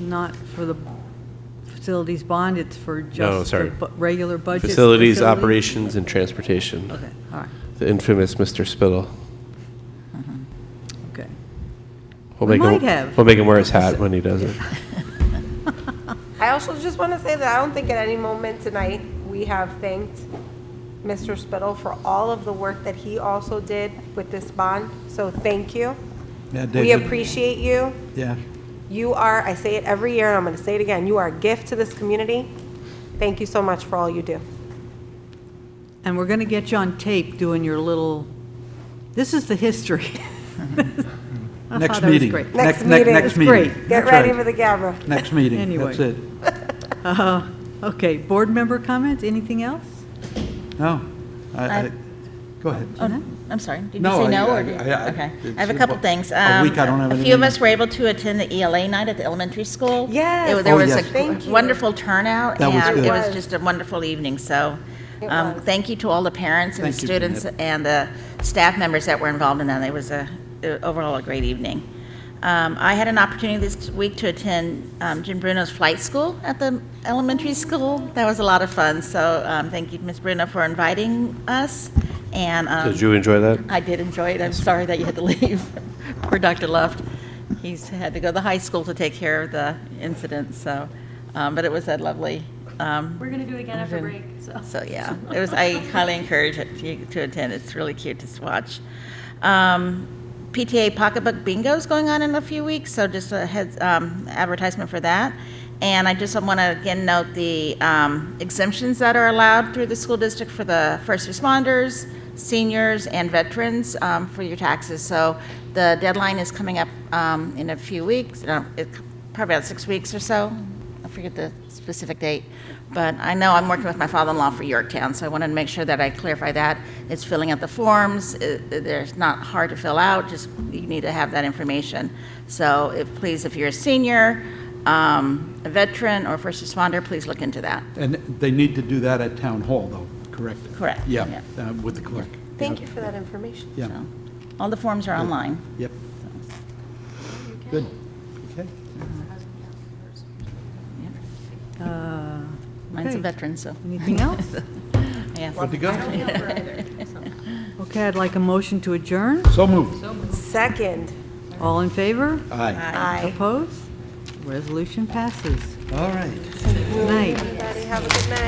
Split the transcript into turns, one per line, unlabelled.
not for the facilities bond, it's for just
sorry.
the bu- regular budget?
Facilities,
facility?
operations, and transportation.
Okay, all right,
The infamous Mr. Spittle.
okay.
We'll
We
make him-
might have.
We'll make him wear his hat when he does it.
I also just want to say that I don't think at any moment tonight, we have thanked Mr. Spittle for all of the work that he also did with this bond, so thank you.
Yeah,
We
David.
appreciate you.
Yeah,
You are, I say it every year, and I'm going to say it again, you are a gift to this community. Thank you so much for all you do.
And we're going to get you on tape doing your little, this is the history. I
next
thought that was
meeting.
great.
Next
ne-
meeting.
Next
It's
meeting.
great.
Get
That's
ready
right.
for the camera.
Next meeting,
Anyway.
that's it.
Uh, Okay, board member comments, anything else?
No, I, I,
I-
go ahead.
Oh, I'm sorry. Did you
No,
say
I-
no,
I-
or did?
I- I-
Okay.
it's
I have a couple
about
things.
a week, I
Um,
don't have
A few
anything.
of us were able to attend the ELA night at the elementary school.
Yes.
There- There
Oh,
was
yes.
Thank
a
you.
wonderful turnout,
That was
and
good.
it was
It was.
just a wonderful evening, so
It
um,
was.
thank you to all the parents and the
Thank you,
students
Jeanette.
and the staff members that were involved in that. It was a, uh, overall a great evening. Um, I had an opportunity this week to attend um, Jim Bruno's flight school at the elementary school. That was a lot of fun, so um, thank you, Ms. Bruno, for inviting us, and. um,
Did you enjoy that?
I did enjoy it. I'm sorry that you had to leave. Poor Dr. Luft. He's had to go to the high school to take care of the incident, so, um, but it was a lovely, um,
We're gonna do it again after break, so.
so, yeah, it was, I highly encourage it to- to attend. It's really cute to watch. Um, PTA Pocketbook Bingo is going on in a few weeks, so just a heads, um, advertisement for that. And I just want to again note the um, exemptions that are allowed through the school district for the first responders, seniors, and veterans um, for your taxes. So the deadline is coming up um, in a few weeks, no, it- probably about six weeks or so, I forget the specific date, but I know I'm working with my father-in-law for Yorktown, so I wanted to make sure that I clarify that. It's filling out the forms, it- there's not hard to fill out, just you need to have that information. So if, please, if you're a senior, um, a veteran, or first responder, please look into that.
And they need to do that at town hall, though, correct?
Correct,
Yeah,
yeah.
uh, with the clerk.
Thank you for that information.
Yeah,
So, All the forms are online.
yep. Good, okay.
Uh,
Mine's a
Okay.
veteran, so,
Anything else?
yeah.
Good to go?
Okay, I'd like a motion to adjourn.
So moved.
Second,
All in favor?
Aye.
aye.
Opposed? Resolution passes.
All right.
Good night.
Everybody have a good night.